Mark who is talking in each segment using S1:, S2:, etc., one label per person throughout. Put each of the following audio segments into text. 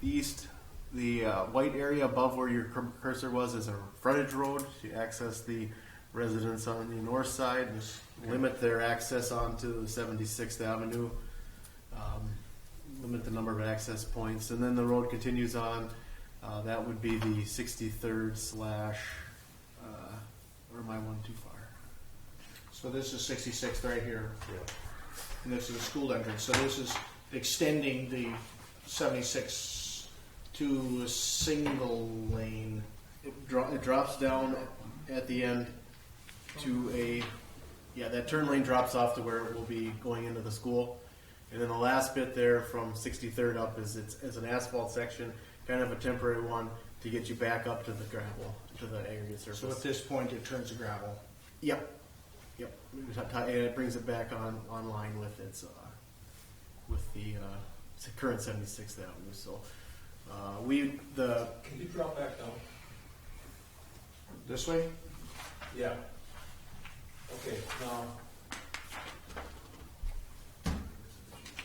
S1: the east, the uh, white area above where your cur- cursor was is a frontage road to access the residents on the north side. Just Limit their access onto 76th Avenue. Um, limit the number of access points, and then the road continues on. Uh, that would be the 63rd slash. Uh, or am I one too far?
S2: So this is 66th right here, and this is the school entrance. So this is extending the 76 to a single lane.
S1: It, dro- it drops down at the end to a yeah that turn lane drops off to where it will be going into the school and then the last bit there from 63rd up is it's, it's an asphalt section kind of a temporary one to get you back up to the gravel to the aggregate surface
S2: So at this point, it turns to gravel.
S1: yep yep and it brings it back on online with its uh, with the uh, s- current 76th avenue so uh, we the
S3: Can you drop back down?
S2: This way?
S3: Yeah. Okay, now.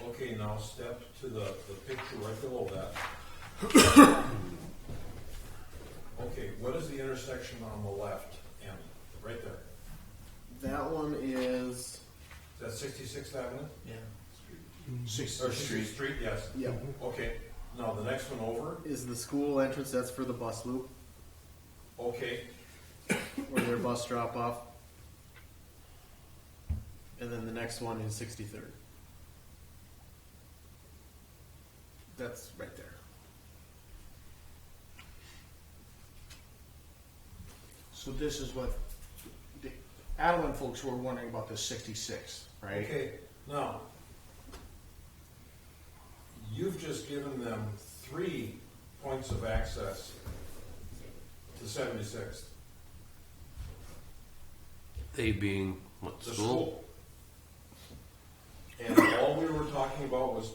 S3: Okay, now step to the, the picture right below that. Okay, what is the intersection on the left, Andy? Right there.
S1: that one is
S3: Is that Sixty-Sixth Avenue?
S2: Yeah.
S3: Or
S2: 66th
S3: Street,
S2: Street.
S3: Street, yes.
S1: yep
S3: Okay, now the next one over,
S1: is the school entrance. That's for the bus loop
S3: okay,
S1: or their bus drop off. And then the next one is 63rd. That's right there.
S2: So this is what the Adeline folks were wondering about the 66th, right?
S3: Okay, now, you've just given them three points of access to seventy-sixth,
S4: They being what
S3: the
S4: school?
S3: school. And all we were talking about was,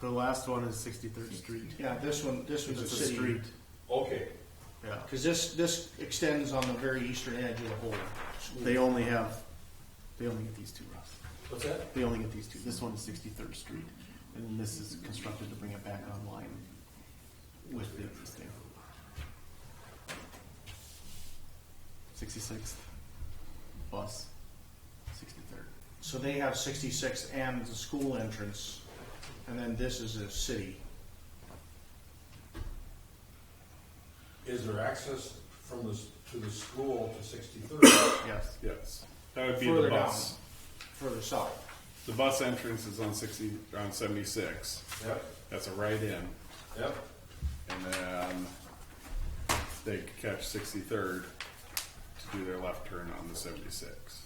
S1: The last one is 63rd Street.
S2: Yeah, this one, this one's a
S1: It's a
S2: city.
S1: street.
S3: okay,
S1: Yeah.
S2: Because this, this extends on the very eastern edge of the whole. school.
S1: They only have, they only get these two routes.
S3: what's that?
S1: They only get these two. This one is 63rd Street. And this is constructed to bring it back online with the existing. 66th, bus, 63rd.
S2: So they have 66th and the school entrance, and then this is a city.
S3: Is there access from the, s- to the school to sixty-third?
S1: Yes.
S5: Yes, that would be
S2: further
S5: the bus.
S2: down, further south.
S5: The bus entrance is on sixty on seventy six.
S3: Yep,
S5: That's a right in,
S3: yep,
S5: and then they could catch sixty third to do their left turn on the seventy six.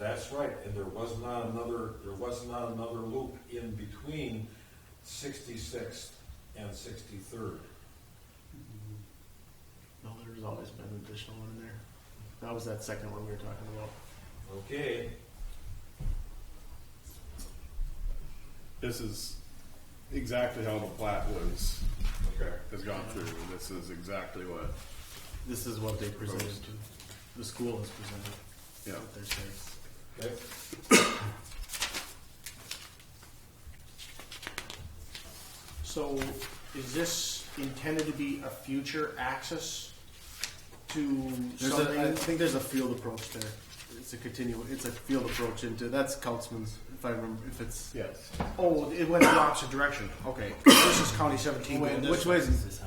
S3: that's right, and there was not another, there was not another loop in between sixty-sixth and sixty-third.
S1: No, there's always been an additional one in there. That was that second one we were talking about.
S3: Okay,
S5: This is exactly how the plat was
S3: okay.
S5: has gone through. This is exactly what.
S1: This is what they presented to, the school has presented.
S5: Yeah.
S1: What they're saying.
S3: Okay.
S2: So is this intended to be a future access to
S1: There's a, I
S2: something?
S1: think there's a field approach there. It's a continu, it's a field approach into, that's Councilman's, if I remember, if it's.
S5: Yes.
S2: Oh, it went the opposite direction, okay. This is County 17 going
S1: Wait,
S2: this
S1: Which
S2: way.
S1: way is this?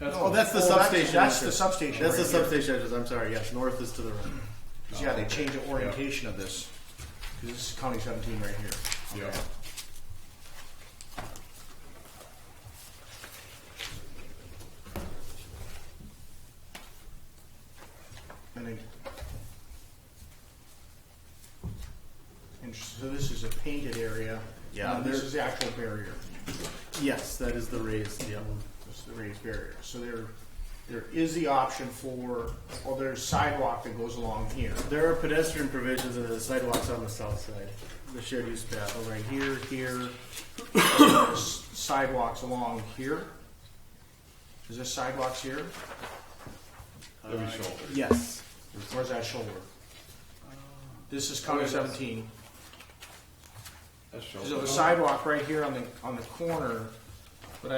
S1: Oh,
S2: No.
S1: that's the
S2: Oh, that's-
S1: substation.
S2: That's
S1: entrance.
S2: the substation.
S1: That's the
S2: right here.
S1: substation entrance, I'm sorry, yes, north is to the right.
S2: 'Cause, Yeah,
S5: Oh,
S2: they changed the orientation of this. 'Cause this is County 17 right here.
S5: Yeah.
S2: Okay. And then. And so this is a painted area.
S1: Yeah,
S2: And this
S1: there-
S2: is the actual barrier.
S1: Yes, that is the raised, yeah.
S2: This is the raised barrier. So there, there is the option for, or there's sidewalk that goes along here.
S1: There are pedestrian provisions and the sidewalks on the south side. The shared use path
S2: oh,
S1: over here, here,
S2: s- sidewalks along here. Is this sidewalks here?
S5: That'd be shoulder.
S1: yes.
S2: Where's that shoulder? This is County seventeen.
S5: That's shoulder.
S2: So the sidewalk right here on the, on the corner